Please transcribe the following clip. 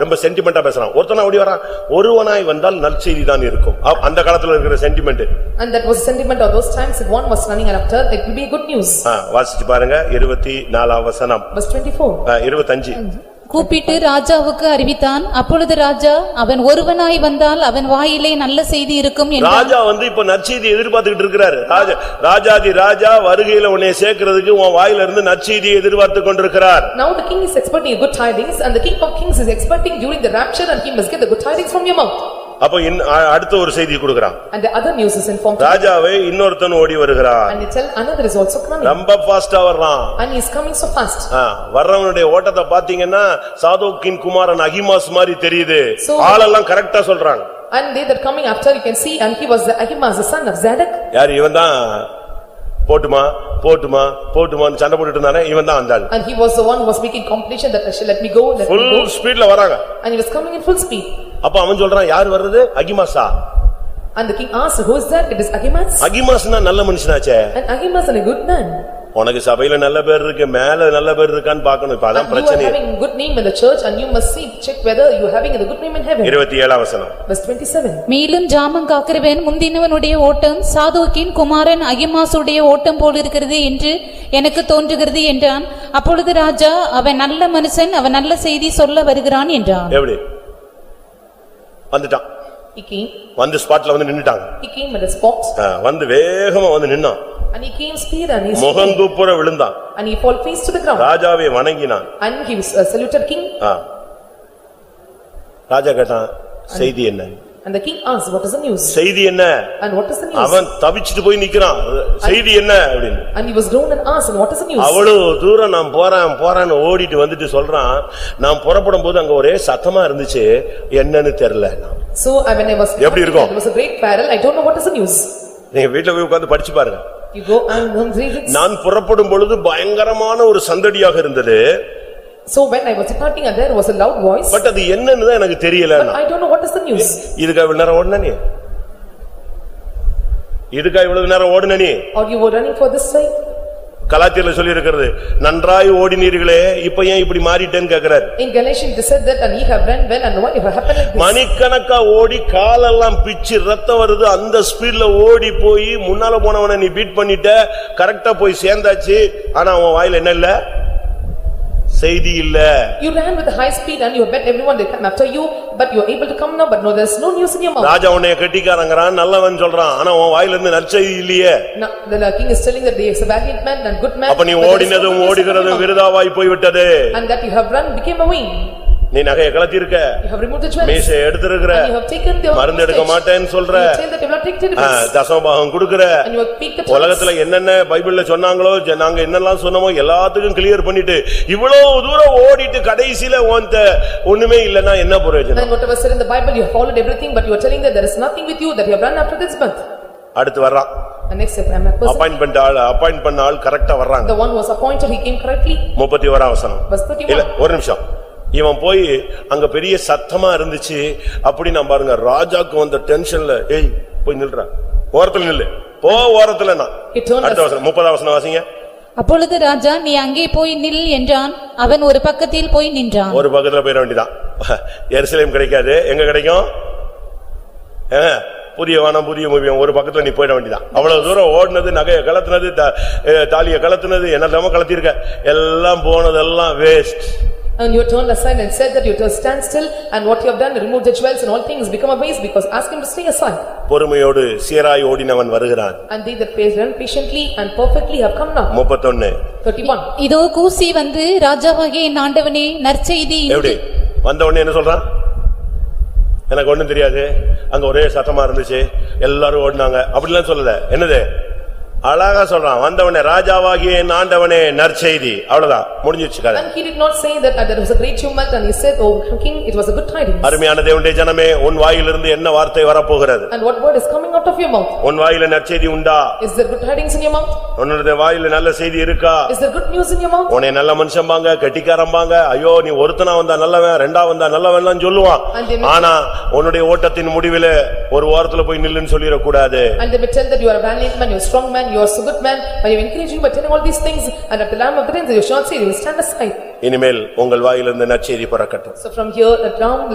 ரொம்ப சென்டிமெண்டா பேசுறான் ஒருத்தனா ஓடி வரான் ஒருவனாய் வந்தால் நற்செய்தி தான் இருக்கும் அப்- அந்த காலத்துல இருக்கிற sentiment And that was the sentiment of those times, if one was running after, it will be good news. வாசிச்சு பாருங்க இருபத்தி நாலாம் வசனம் Verse twenty-four. ஆ, இருபத்தஞ்சு கூப்பிட்டு ராஜாவுக்கு அறிவித்தான் அப்பொழுது ராஜா அவன் ஒருவனாய் வந்தால் அவன் வாயிலே நல்ல செய்தி இருக்கும் என்று ராஜா வந்து இப்ப நற்செய்தி எதிர்பார்த்துக்கிட்டு இருக்கிறாரு ராஜா ராஜாதி ராஜா வருகையில உன்னை சேர்க்கிறதுக்கு உன் வாயில இருந்து நற்செய்தியை எதிர்பார்த்து கொண்டிருக்கிறார் Now the king is expecting good tidings and the king of kings is expecting during the rapture and he must get the good tidings from your mouth. அப்ப இன்- அ- அடுத்த ஒரு செய்தி கொடுக்கிறான் And the other news is informed to ராஜாவை இன்னொருத்தன் ஓடி வருகிறான் and they tell another is also coming ரொம்ப பாஸ்டா வர்றான் and he is coming so fast. ஆ, வர்றவனுடைய ஓட்டத்தை பாத்தீங்கன்னா சாதோக்கின் குமாரன் அகிமாஸ் மாதிரி தெரியுது So- ஆளெல்லாம் கரெக்டா சொல்றாங்க And they that coming after you can see and he was the Ahimaaz, the son of Zadok. யார் இவன் தான் போட்டுமா போட்டுமா போட்டுமான்னு சண்டை போட்டுட்டு இருந்தானே இவன் தான் அந்த ஆள் And he was the one who was making competition that I shall let me go, let me full go. ஸ்பீட்ல வராங்க And he was coming in full speed. அப்ப அவன் சொல்றான் யார் வர்றது அகிமாஸா And the king asked, who is that? It is Ahimaaz. அகிமாஸ்னா நல்ல மனுஷனாச்சே And Ahimaaz is a good man. உனக்கு சபையில நல்ல பேர் இருக்கு மேல நல்ல பேர் இருக்கான்னு பார்க்கணும் இப்ப அதான் And you are பிரச்சனை having good name in the church and you must see, check whether you are having the good name in heaven. இருபத்தி ஏழாம் வசனம் Verse twenty-seven. மேலும் ஜாமம் காக்கிறவன் முந்தினவனுடைய ஓட்டம் சாதோக்கின் குமாரன் அகிமாசுடைய ஓட்டம் போலிருக்கிறது என்று எனக்கு தோன்றுகிறது என்றான் அப்பொழுது ராஜா அவன் நல்ல மனுஷன் அவன் நல்ல செய்தி சொல்ல வருகிறான் என்றான் எப்படி வந்துட்டான் He came, வந்து ஸ்பாட்ல வந்து நின்னுட்டாங்க he came at a spot ஆ, வந்து வேகமா வந்து நின்னான் and he came speed and he stood முகங்குப்புற விழுந்தான் and he fall face to the ground ராஜாவை வணங்கினான் and he was uh, saluted king ஆ. ராஜா கேட்டான் செய்தி என்ன and the king asked what is the news செய்தி என்ன and what is the news அவன் தவிச்சிட்டு போய் நிக்கிறான் செய்தி என்ன அப்படின்னு and he was grown and asked and what is the news அவ்வளவு தூரம் நான் போறேன் போறேன்னு ஓடிட்டு வந்துட்டு சொல்றான் நான் புறப்படும் போது அங்க ஒரே சத்தமா இருந்துச்சு என்னன்னு தெரியல so uh, when I was எப்படி இருக்கும்? there was a great peril I don't know what is the news நீங்க வீட்டுல போய் உட்கார்ந்து படிச்சு பாருங்க you go and um, read it. நான் புறப்படும் பொழுது பயங்கரமான ஒரு சந்தடியாக இருந்தது so when I was departing and there was a loud voice but அது என்னன்னு தான் எனக்கு தெரியல but I don't know what is the news இதுக்கா இவ்வளவு நேரம் ஓடுன நீ இதுக்கா இவ்வளவு நேரம் ஓடுன நீ or you were running for this side கலாத்தியல சொல்லி இருக்கிறது நன்றாய் ஓடினீர்களே இப்ப ஏன் இப்படி மாறிட்டேன்னு கேக்குறாரு in Galatians they said that and ye have run well and why it happened like this மணிக்கணக்கா ஓடி காலெல்லாம் பிச்சு ரத்தம் வருது அந்த ஸ்பீட்ல ஓடி போய் முன்னால போனவன நீ பீட் பண்ணிட்ட கரெக்டா போய் சேர்ந்தாச்சு ஆனா உன் வாயில என்ன இல்ல செய்தி இல்ல you ran with a high speed and you bet everyone they come after you but you are able to come now but no there's no news in your mouth ராஜா உன்னைய கெட்டிக்காரங்கிறான் நல்லவன் சொல்றான் ஆனா உன் வாயில இருந்து நற்செய்தி இல்லையே Now, the king is telling that he is a valiant man and good man. அப்ப நீ but there is no ஓடினதும் goodness in ஓடுகிறதும் him. விருதாவாய் போய்விட்டது And that you have run became a wing. நீ நகைய கலத்திருக்க You have removed the jewels. மீசை எடுத்திருக்கிற And you have taken the. மருந்து எடுக்க hostage. மாட்டேன்னு சொல்ற. And You tell that you have not taken ah, it. தசமபாகம் கொடுக்கிற And you have picked the. உலகத்துல என்னென்ன பைபிள்ல சொன்னாங்களோ ஜ- நாங்க என்னெல்லாம் சொன்னோமோ எல்லாத்துக்கும் கிளியர் பண்ணிட்டு இவ்வளவு தூரம் ஓடிட்டு கடைசியில உன்ட ஒண்ணுமே இல்லன்னா என்ன And பிரயோஜனம் whatever said in the Bible, you have followed everything, but you are telling that there is nothing with you, that you have run after this month. அடுத்து வர்றான் And next, I am a person. Appoint பண்ண ஆள் appoint பண்ண ஆள் கரெக்டா வர்றாங்க The one who was appointed, he came correctly. முப்பத்தி ஓராம் வசனம் Verse இல்ல 31. ஒரு நிமிஷம் இவன் போய் அங்க பெரிய சத்தமா இருந்துச்சு அப்படி நான் பாருங்க ராஜாக்கு வந்த டென்ஷன்ல ஏய் போய் நில்றா ஓரத்துல நில்லு போ ஓரத்துல நான் He turned அடுத்த வசனம் முப்பதாம் வசனம் வாசிங்க அப்பொழுது ராஜா நீ அங்கே போய் நில் என்றான் அவன் ஒரு பக்கத்தில் போய் நின்றான் ஒரு பக்கத்துல போயிட வேண்டிதான் எருசலேம் கிடைக்காது எங்க கிடைக்கும் ஆ, புதிய வானம் புதிய முவியம் ஒரு பக்கத்துல நீ போயிட வேண்டிதான் அவ்வளவு தூரம் ஓடுனது நகைய கலத்துனது தா- ஏ, தாலிய கலத்துனது என்னெல்லாமோ கலத்திருக்க எல்லாம் போனதெல்லாம் waste And you turned aside and said that you just stand still, and what you have done, remove the jewels and all things become a waste, because ask him to stay aside. பொறுமையோடு சீராய் ஓடினவன் வருகிறான் And they that ran patiently and perfectly have come now. முப்பத்தொன்னு Thirty-one. இதோ கூசி வந்து ராஜாவாகிய என் ஆண்டவனே நற்செய்தி இன்று எப்படி வந்த உடனே என்ன சொல்றான் எனக்கு ஒண்ணும் தெரியாது அங்க ஒரே சத்தமா இருந்துச்சு எல்லாரும் ஓடினாங்க அப்படிலாம் சொல்லல என்னது அழகா சொல்றான் வந்தவனே ராஜாவாகிய என் ஆண்டவனே நற்செய்தி அவ்வளவுதான் முடிஞ்சிருச்சு கதை And he did not say that uh, there was a great tumult and he said, "Oh king, it was a good tidings." அருமையான தேவனுடைய ஜனமே உன் வாயிலிருந்து என்ன வார்த்தை வரப்போகிறது And what word is coming out of your mouth? உன் வாயில நற்செய்தி உண்டா Is there good tidings in your mouth? உன்னுடைய வாயில நல்ல செய்தி இருக்கா Is there good news in your mouth? உன்னை நல்ல மனுஷம்பாங்க கெட்டிக்காரம்பாங்க ஐயோ நீ ஒருத்தனா வந்தா நல்லவன் ரெண்டா வந்தா நல்லவன்லாம் சொல்லுவான் And they- ஆனா உன்னுடைய ஓட்டத்தின் முடிவிலே ஒரு வாரத்துல போய் நில்லுன்னு சொல்லிடக்கூடாது And they may tell that you are a valiant man, you are a strong man, man, you are so good man, by your encouraging, by telling all these things, and at the lamb of the day, you shall say, you will stand aside. இனிமேல் உங்கள் வாயிலிருந்து நற்செய்தி பிறக்கட்டும் So from here, the lamb